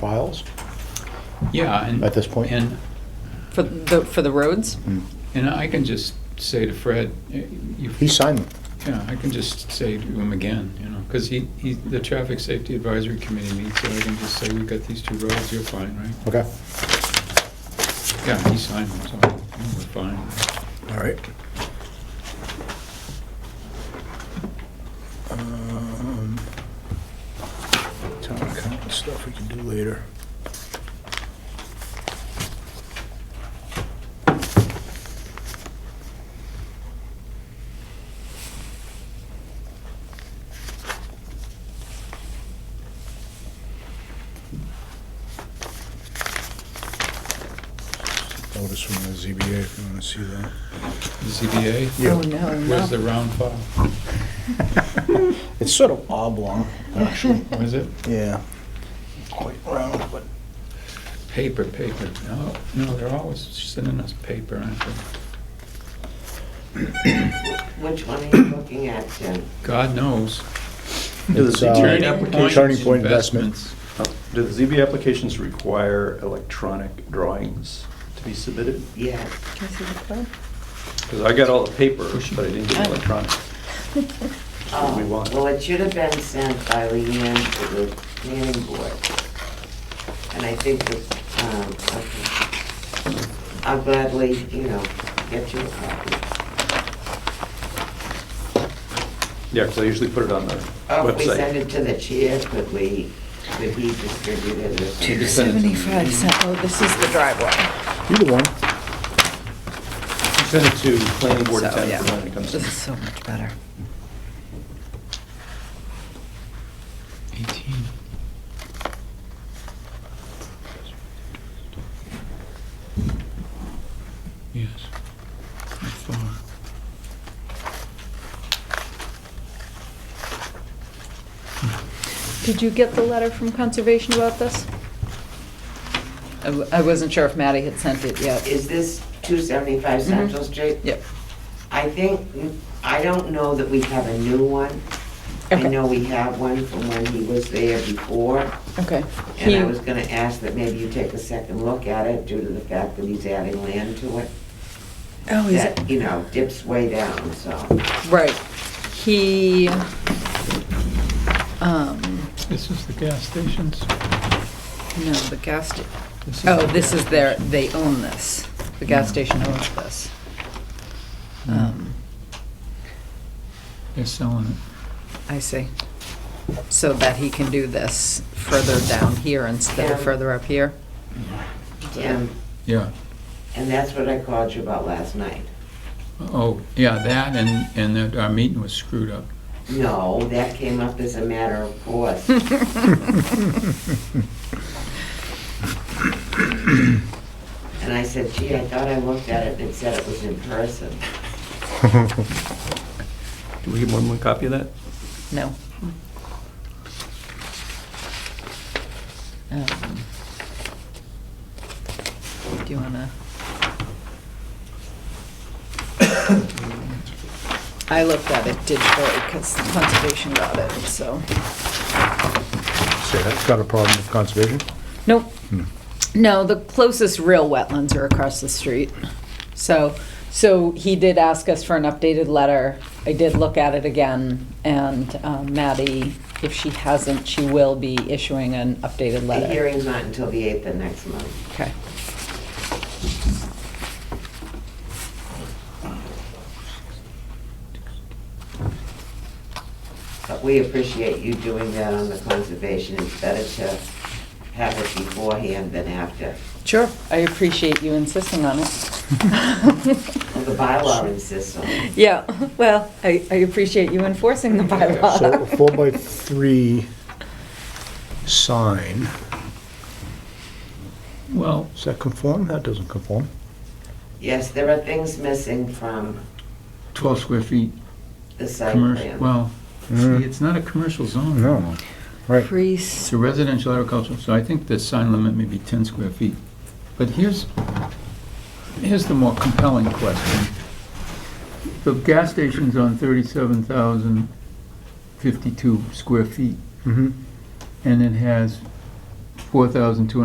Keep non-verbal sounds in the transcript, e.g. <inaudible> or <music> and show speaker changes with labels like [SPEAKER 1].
[SPEAKER 1] files
[SPEAKER 2] Yeah, and.
[SPEAKER 1] at this point?
[SPEAKER 2] And,
[SPEAKER 3] For the, for the roads?
[SPEAKER 1] Mm.
[SPEAKER 2] and I can just say to Fred, eh, you,
[SPEAKER 1] He signed them.
[SPEAKER 2] yeah, I can just say to him again, you know, because he, he, the Traffic Safety Advisory Committee meets, so I can just say, we've got these two roads, you're fine, right?
[SPEAKER 1] Okay.
[SPEAKER 2] Yeah, he signed them, so yeah, we're fine.
[SPEAKER 1] All right. Um, Town account stuff we can do later. Notice from the ZBA if you want to see that.
[SPEAKER 2] The ZBA,
[SPEAKER 1] Yeah.
[SPEAKER 3] Oh, no,
[SPEAKER 2] where's the
[SPEAKER 3] no.
[SPEAKER 2] round file?
[SPEAKER 1] It's sort of oblong, actually.
[SPEAKER 2] Was it
[SPEAKER 1] Yeah. Quite round, but.
[SPEAKER 2] paper, paper? No, no, they're always sending us paper, aren't they?
[SPEAKER 4] Which one are you looking at, Jim?
[SPEAKER 2] God knows.
[SPEAKER 1] It's, uh,
[SPEAKER 2] Turning
[SPEAKER 1] Turning
[SPEAKER 2] Point
[SPEAKER 1] Point Investments.
[SPEAKER 5] Do the ZB applications require electronic drawings to be submitted?
[SPEAKER 4] Yes.
[SPEAKER 3] Can I see the code?
[SPEAKER 5] Because I got all the paper, but I didn't get the electronic.
[SPEAKER 4] <laughs> Oh,
[SPEAKER 5] we want.
[SPEAKER 4] Well, it should have been sent by Leanne to the planning board. And I think that, um, okay. I'll gladly, you know, get you a copy.
[SPEAKER 5] Yeah, because I usually put it on the website.
[SPEAKER 4] Oh, if we send it to the chair, could we, could he distribute it? as-
[SPEAKER 5] You can send it to me.
[SPEAKER 3] Seventy-five cent, oh, this is the driveway.
[SPEAKER 1] Either one.
[SPEAKER 5] Send it to planning board
[SPEAKER 3] So,
[SPEAKER 5] attorney
[SPEAKER 3] yeah.
[SPEAKER 5] when it comes
[SPEAKER 3] This is
[SPEAKER 5] to.
[SPEAKER 3] so much better.
[SPEAKER 2] Eighteen. Yes, by far.
[SPEAKER 3] Did you get the letter from Conservation about this? I w- I wasn't sure if Maddie had sent it yet.
[SPEAKER 4] Is this two seventy-five Central Street?
[SPEAKER 3] Yep.
[SPEAKER 4] I think, I don't know that we have a new one. I
[SPEAKER 3] Okay.
[SPEAKER 4] know we have one from when he was there before.
[SPEAKER 3] Okay.
[SPEAKER 4] And I
[SPEAKER 3] He-
[SPEAKER 4] was gonna ask that maybe you take a second look at it due to the fact that he's adding land to it.
[SPEAKER 3] Oh, is it?
[SPEAKER 4] That, you know, dips way down, so.
[SPEAKER 3] Right. He, um,
[SPEAKER 2] This is the gas stations.
[SPEAKER 3] no, the gas, sta-
[SPEAKER 2] This is
[SPEAKER 3] oh,
[SPEAKER 2] the
[SPEAKER 3] this
[SPEAKER 2] gas-
[SPEAKER 3] is their, they own this. The gas station owns this.
[SPEAKER 2] Mm.
[SPEAKER 3] Um,
[SPEAKER 2] They're selling it.
[SPEAKER 3] I see. So that he can do this further down here instead of
[SPEAKER 4] Yeah.
[SPEAKER 3] further up here?
[SPEAKER 4] Jim,
[SPEAKER 2] Yeah.
[SPEAKER 4] and that's what I called you about last night.
[SPEAKER 2] Oh, yeah, that and, and that our meeting was screwed up.
[SPEAKER 4] No, that came up as a matter of course. And I said, gee, I thought I looked at it and it said it was in person.
[SPEAKER 5] Do we get more than one copy of that?
[SPEAKER 3] No. Um, Do you wanna? <coughs> I looked at it digitally because conservation got it, so.
[SPEAKER 1] Say that's got a problem with conservation?
[SPEAKER 3] Nope.
[SPEAKER 1] Hmm.
[SPEAKER 3] No, the closest real wetlands are across the street. So, so he did ask us for an updated letter. I did look at it again, and um, Maddie, if she hasn't, she will be issuing an updated
[SPEAKER 4] The
[SPEAKER 3] letter.
[SPEAKER 4] hearing's not until the 8th of next month.
[SPEAKER 3] Okay.
[SPEAKER 4] But we appreciate you doing that on the conservation. It's better to have it beforehand than after.
[SPEAKER 3] Sure. I appreciate you insisting on it.
[SPEAKER 4] Well, the bylaw insists on it.
[SPEAKER 3] Yeah, well, I, I appreciate you enforcing the
[SPEAKER 1] So
[SPEAKER 3] bylaw.
[SPEAKER 1] a four by three sign,
[SPEAKER 2] Well,
[SPEAKER 1] does that conform? That doesn't conform.
[SPEAKER 4] Yes, there are things missing from
[SPEAKER 2] twelve square feet,
[SPEAKER 4] the site
[SPEAKER 2] commercial,
[SPEAKER 4] plan.
[SPEAKER 2] well, see, it's not a commercial zone
[SPEAKER 1] No.
[SPEAKER 2] anymore.
[SPEAKER 1] Right.
[SPEAKER 2] It's
[SPEAKER 3] Priest.
[SPEAKER 2] a residential agricultural, so I think the sign limit may be 10 square feet. But here's, here's the more compelling question. The gas station's on 37,052 square feet,
[SPEAKER 1] Mm-hmm.
[SPEAKER 2] and it has four thousand two